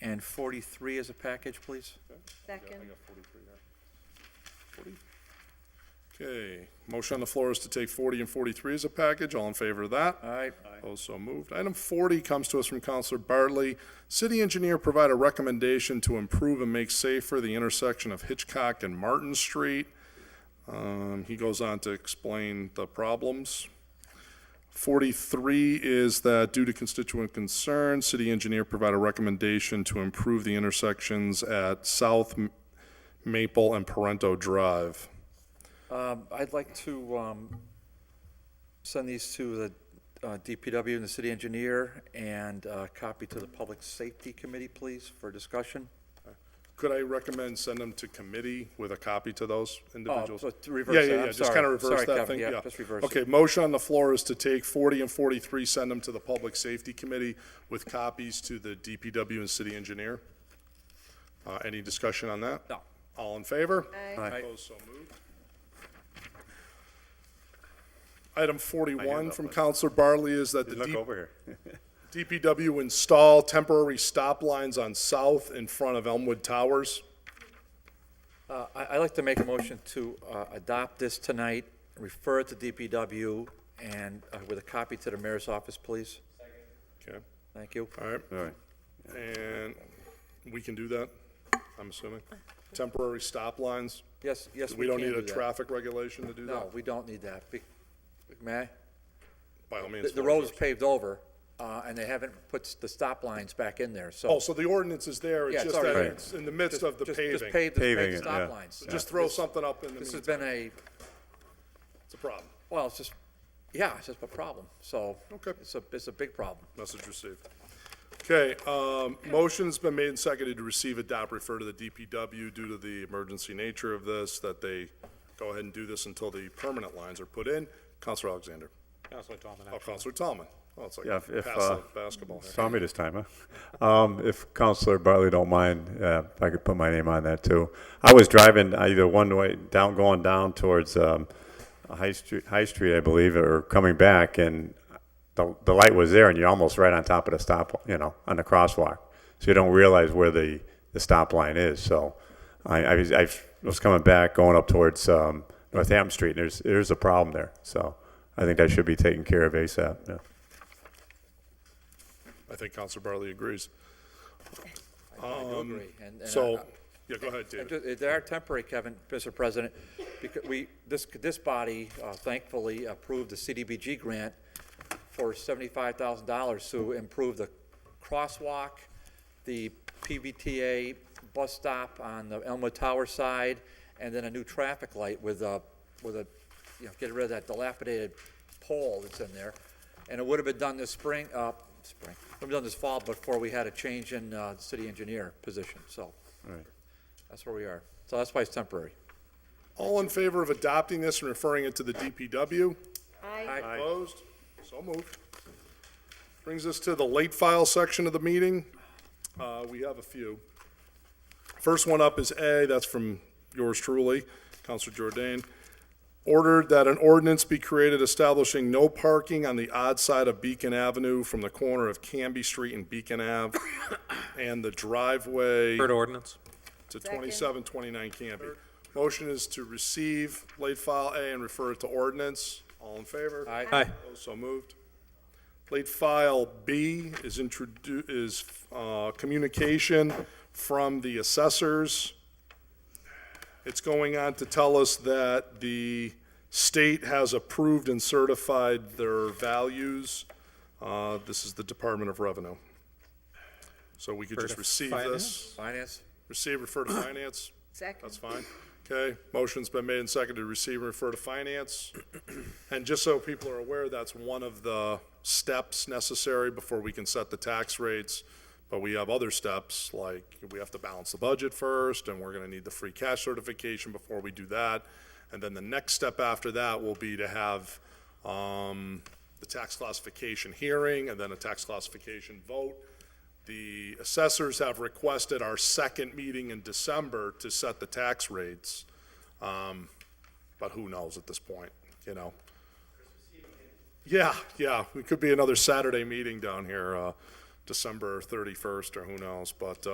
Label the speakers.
Speaker 1: and 43 as a package, please.
Speaker 2: Second.
Speaker 3: Okay, motion on the floor is to take 40 and 43 as a package. All in favor of that?
Speaker 1: Aye.
Speaker 3: Opposed, so moved. Item 40 comes to us from Counselor Bartley. City engineer provide a recommendation to improve and make safer the intersection of Hitchcock and Martin Street. Um, He goes on to explain the problems. 43 is that due to constituent concern, city engineer provide a recommendation to improve the intersections at South M- Maple and Parento Drive.
Speaker 1: Um, I'd like to um, send these to the uh, DPW and the city engineer and uh, copy to the Public Safety Committee, please, for discussion.
Speaker 3: Could I recommend send them to committee with a copy to those
Speaker 1: Oh,
Speaker 3: individuals?
Speaker 1: so to
Speaker 3: Yeah,
Speaker 1: reverse that,
Speaker 3: yeah,
Speaker 1: I'm
Speaker 3: yeah, just
Speaker 1: sorry.
Speaker 3: kind of reverse
Speaker 1: Sorry,
Speaker 3: that
Speaker 1: Kevin,
Speaker 3: thing, yeah.
Speaker 1: just reverse
Speaker 3: Okay,
Speaker 1: it.
Speaker 3: motion on the floor is to take 40 and 43, send them to the Public Safety Committee with copies to the DPW and city engineer. Uh, Any discussion on that?
Speaker 1: No.
Speaker 3: All in favor?
Speaker 2: Aye.
Speaker 1: Aye.
Speaker 3: Opposed, so moved. Item 41 from Counselor Bartley is that the
Speaker 4: Look
Speaker 3: DP
Speaker 4: over here.
Speaker 3: DPW install temporary stop lines on South in front of Elmwood Towers.
Speaker 1: Uh, I- I'd like to make a motion to uh, adopt this tonight, refer it to DPW, and uh, with a copy to the mayor's office, please.
Speaker 3: Okay,
Speaker 1: Thank you.
Speaker 3: all right.
Speaker 4: All right.
Speaker 3: And we can do that, I'm assuming? Temporary stop lines?
Speaker 1: Yes, yes,
Speaker 3: We
Speaker 1: we can
Speaker 3: don't
Speaker 1: do
Speaker 3: need a
Speaker 1: that.
Speaker 3: traffic regulation to do that?
Speaker 1: No, we don't need that. Be- May I?
Speaker 3: By all
Speaker 1: The-
Speaker 3: means.
Speaker 1: The road is paved over, uh, and they haven't put s- the stop lines back in there, so.
Speaker 3: Oh, so the ordinance is there,
Speaker 1: Yeah,
Speaker 3: it's
Speaker 1: it's
Speaker 3: just that
Speaker 1: already-
Speaker 3: it's in the midst of the
Speaker 1: Just- Just
Speaker 3: paving.
Speaker 1: pave, the- pave
Speaker 4: Paving
Speaker 1: the
Speaker 4: it,
Speaker 1: stop
Speaker 4: yeah.
Speaker 1: lines.
Speaker 3: Just throw something up in the
Speaker 1: This has
Speaker 3: meantime,
Speaker 1: been a,
Speaker 3: it's a problem.
Speaker 1: well, it's just, yeah, it's just a problem, so.
Speaker 3: Okay.
Speaker 1: It's a, it's a big problem.
Speaker 3: Message received. Okay, um, motion's been made and seconded to receive, adopt, refer to the DPW due to the emergency nature of this, that they go ahead and do this until the permanent lines are put in. Counselor Alexander.
Speaker 5: Counselor Tomlin,
Speaker 3: Oh, Counselor Tomlin. Oh, it's like
Speaker 4: Yeah, if- if,
Speaker 3: pass the
Speaker 4: uh,
Speaker 3: basketball here.
Speaker 4: Saw me this time, huh? Um, if Counselor Bartley don't mind, uh, if I could put my name on that too. I was driving uh, either one way down, going down towards, um, High Street, High Street, I believe, or coming back and the, the light was there and you're almost right on top of the stop, you know, on the crosswalk. So you don't realize where the, the stop line is. So I, I was, I was coming back, going up towards, um, Northampton Street and there's, there's a problem there. So I think that should be taken care of ASAP, yeah.
Speaker 3: I think Counselor Bartley agrees.
Speaker 1: I do agree. And- and Uh, I-
Speaker 3: Um, So, yeah, go ahead,
Speaker 1: And
Speaker 3: David.
Speaker 1: ju- They are temporary, Kevin, Mr. President, because we, this, this body uh, thankfully approved the CDBG grant for seventy-five thousand dollars to improve the crosswalk, the PBTA bus stop on the Elmwood Tower side, and then a new traffic light with a, with a, you know, get rid of that dilapidated pole that's in there. And it would have been done this spring, uh, spring, would have been done this fall before we had a change in, uh, city engineer position, so. That's where we are. So that's why it's temporary.
Speaker 3: All in favor of adopting this and referring it to the DPW?
Speaker 2: Aye.
Speaker 3: Opposed? So moved. Brings us to the late file section of the meeting. Uh, we have a few. First one up is A, that's from yours truly, Counselor Jordan. Ordered that an ordinance be created establishing no parking on the odd side of Beacon Avenue from the corner of Canby Street and Beacon Ave and the driveway
Speaker 5: Third ordinance.
Speaker 3: to twenty-seven, twenty-nine Canby. Motion is to receive late file A and refer it to ordinance. All in favor?
Speaker 1: Aye.
Speaker 5: Aye.
Speaker 3: Opposed? So moved. Late file B is introdu, is, uh, communication from the assessors. It's going on to tell us that the state has approved and certified their values. Uh, this is the Department of Revenue. So we could just receive this.
Speaker 1: Finance?
Speaker 3: Receive, refer to finance.
Speaker 2: Second.
Speaker 3: That's fine. Okay, motion's been made and seconded, receive and refer to finance. And just so people are aware, that's one of the steps necessary before we can set the tax rates. But we have other steps, like we have to balance the budget first, and we're gonna need the free cash certification before we do that. And then the next step after that will be to have, um, the tax classification hearing, and then a tax classification vote. The assessors have requested our second meeting in December to set the tax rates. Um, But who knows at this point, you know? Yeah, yeah, it could be another Saturday meeting down here, uh, December 31st or who knows, but, uh,